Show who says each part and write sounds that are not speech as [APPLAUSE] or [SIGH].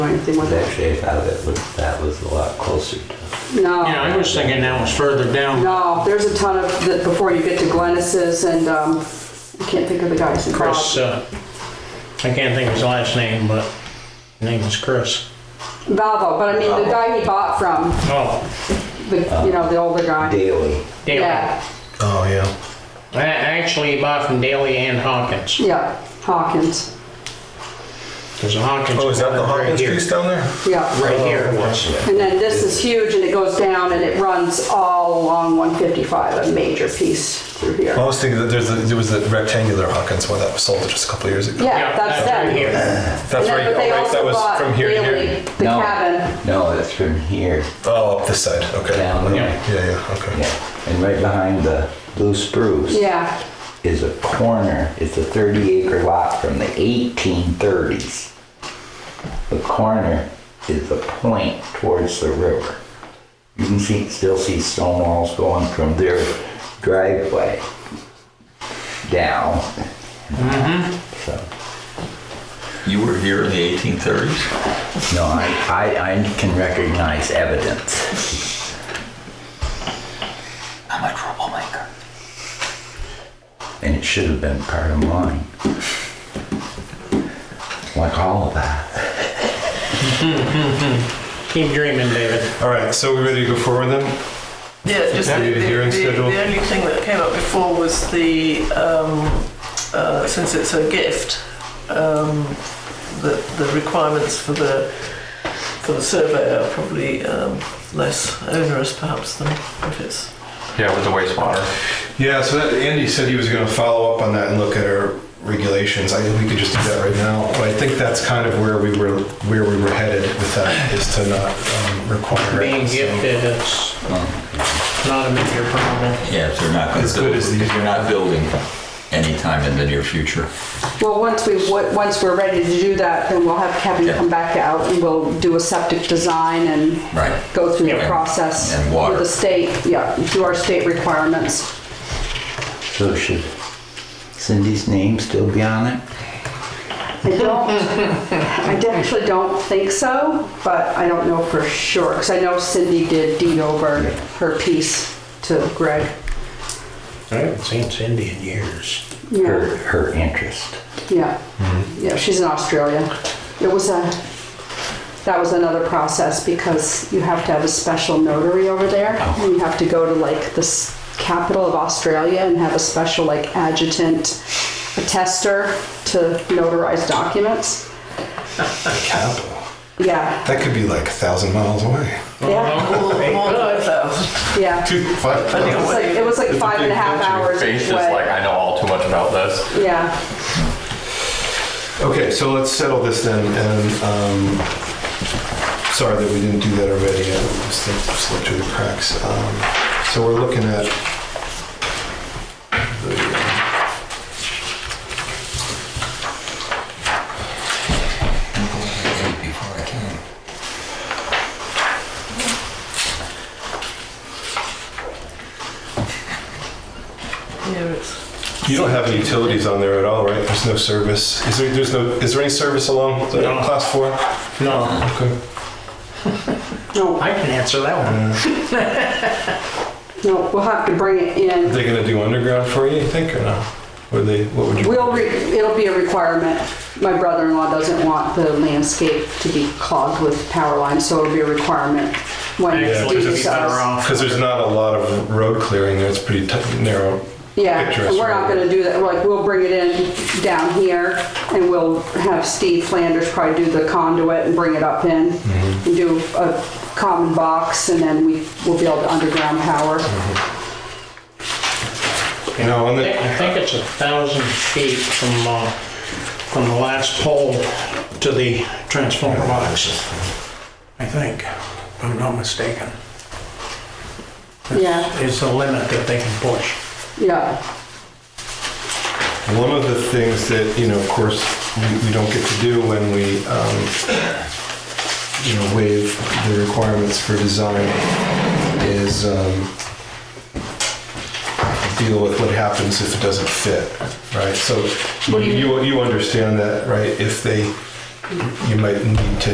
Speaker 1: anything with
Speaker 2: That
Speaker 1: it.
Speaker 2: shape out of it, but that was a lot closer to.
Speaker 1: No.
Speaker 3: Yeah, I was thinking that was further down.
Speaker 1: No, there's a ton of, that before you get to Glennis's and, um, I can't think of the guys involved.
Speaker 3: Chris, uh, I can't think of his last name, but his name is Chris.
Speaker 1: Valvo, but I mean, the guy he bought from,
Speaker 3: Oh,
Speaker 1: the, you know, the older guy.
Speaker 2: Daily.
Speaker 3: Daley.
Speaker 1: Yeah,
Speaker 4: Oh, yeah.
Speaker 3: I actually he bought from Daley and Hawkins,
Speaker 1: yeah, Hawkins,
Speaker 3: because Hawkins.
Speaker 4: Oh, is that the
Speaker 3: right
Speaker 4: Hawkins
Speaker 3: here.
Speaker 4: piece down there?
Speaker 1: yeah.
Speaker 3: Right here.
Speaker 1: And then this is huge and it goes down and it runs all along 155, a major piece through here.
Speaker 4: I was thinking that there's a, there was a rectangular Hawkins one that was sold just a couple years ago.
Speaker 1: Yeah, that's
Speaker 3: right
Speaker 1: them.
Speaker 3: here.
Speaker 1: And
Speaker 4: That's right.
Speaker 1: then- but
Speaker 4: Oh,
Speaker 1: they
Speaker 4: right.
Speaker 1: also
Speaker 4: That was
Speaker 1: bought
Speaker 4: from here to
Speaker 1: Bailey,
Speaker 4: here.
Speaker 1: The
Speaker 2: No.
Speaker 1: cabin,
Speaker 2: No, that's from here
Speaker 4: Oh, up this side. Okay.
Speaker 2: down there.
Speaker 3: Yeah.
Speaker 4: Yeah, yeah. Okay.
Speaker 2: Yeah. And right behind the blue spruce
Speaker 1: yeah,
Speaker 2: is a corner. It's a 30 acre lot from the 1830s. The corner is a point towards the river. You can see, still see stone walls going from their driveway down. So.
Speaker 5: You were here in the 1830s?
Speaker 2: No, I, I, I can recognize evidence.
Speaker 5: I'm a troublemaker.
Speaker 2: And it should have been part of mine. Like all of that.
Speaker 3: Keep dreaming, David.
Speaker 4: All right. So we ready to go forward then?
Speaker 6: Yeah, just the,
Speaker 4: Have you
Speaker 6: the,
Speaker 4: a hearing
Speaker 6: the,
Speaker 4: schedule?
Speaker 6: the only thing that came up before was the um, uh, since it's a gift, um, the the requirements for the for the survey are probably um, less onerous perhaps than if it's
Speaker 5: Yeah, with the wastewater.
Speaker 4: Yeah. So that Andy said he was going to follow up on that and look at our regulations. I think we could just do that right now. But I think that's kind of where we were where we were headed with that is to not um, require it.
Speaker 3: Being
Speaker 4: So-
Speaker 3: gifted, it's not a major problem.
Speaker 5: Yeah, if they're not gonna
Speaker 4: As good
Speaker 5: build-
Speaker 4: as the-
Speaker 5: if They're not building anytime in the near future.
Speaker 1: well, once we, wa- once we're ready to do that, then we'll have Kevin
Speaker 5: Yeah.
Speaker 1: come back out and we'll do a septic design and
Speaker 5: Right.
Speaker 1: go through the
Speaker 5: Yeah.
Speaker 1: process.
Speaker 5: And water.
Speaker 1: With the state, yeah, do our state requirements.
Speaker 2: So should Cindy's name still be on it?
Speaker 1: I don't, I actually don't think so, but I don't know for sure, because I know Cindy did deed over her piece to Greg.
Speaker 3: I haven't seen Cindy in years.
Speaker 1: Yeah,
Speaker 2: Her, her interest.
Speaker 1: yeah,
Speaker 7: Mm-hmm.
Speaker 1: yeah, she's in Australia. It was a, that was another process, because you have to have a special notary over there.
Speaker 7: Oh.
Speaker 1: and You have to go to like the s- capital of Australia and have a special like adjutant attester to notarize documents.
Speaker 4: Capital.
Speaker 1: Yeah,
Speaker 4: That could be like a thousand miles away.
Speaker 1: yeah,
Speaker 6: more, more than a thousand.
Speaker 1: yeah.
Speaker 4: Two, five.
Speaker 1: It was like, it was like five and a half hours
Speaker 7: face
Speaker 1: each
Speaker 7: is like,
Speaker 1: way.
Speaker 7: I know all too much about this.
Speaker 1: Yeah,
Speaker 4: Okay, so let's settle this then, and, um, sorry that we didn't do that already, I just think it slipped through the cracks. Um, So we're looking at the, uh,
Speaker 5: Before I came.
Speaker 6: Yeah, it's
Speaker 4: you don't have any utilities on there at all, right? There's no service. Is there, there's no, is there any service along the
Speaker 3: No.
Speaker 4: class four?
Speaker 3: No,
Speaker 4: Okay.
Speaker 1: no,
Speaker 3: I can answer that one.
Speaker 4: Uh,
Speaker 1: no, we'll have to bring it
Speaker 4: Are
Speaker 1: in.
Speaker 4: they gonna do underground for you, you think, or no? Would they, what would you?
Speaker 1: We'll, re- it'll be a requirement. My brother-in-law doesn't want the landscape to be clogged with power lines, so it'll be a requirement when it's
Speaker 3: Actually,
Speaker 1: due
Speaker 3: it'd be
Speaker 1: to
Speaker 3: better
Speaker 1: us.
Speaker 4: [LAUGHS]
Speaker 3: off.
Speaker 4: Because there's not a lot of road clearing there, it's pretty tight- narrow.
Speaker 1: Yeah,
Speaker 4: picture
Speaker 1: and
Speaker 4: us
Speaker 1: we're not
Speaker 4: right.
Speaker 1: gonna do that, like, we'll bring it in down here and we'll have Steve Flanders probably do the conduit and bring it up in and do a common box and then we will build underground power.
Speaker 4: You know, on
Speaker 3: I
Speaker 4: the.
Speaker 3: think- I think it's a thousand feet from, uh, from the last pole to the transformer box. I think, if I'm not mistaken.
Speaker 1: Yeah.
Speaker 3: It's the limit that they can push.
Speaker 1: Yeah.
Speaker 4: One of the things that, you know, of course, we- we don't get to do when we, um, you know, waive the requirements for design is um, deal with what happens if it doesn't fit, right? So you, you understand that, right? If they, you might need to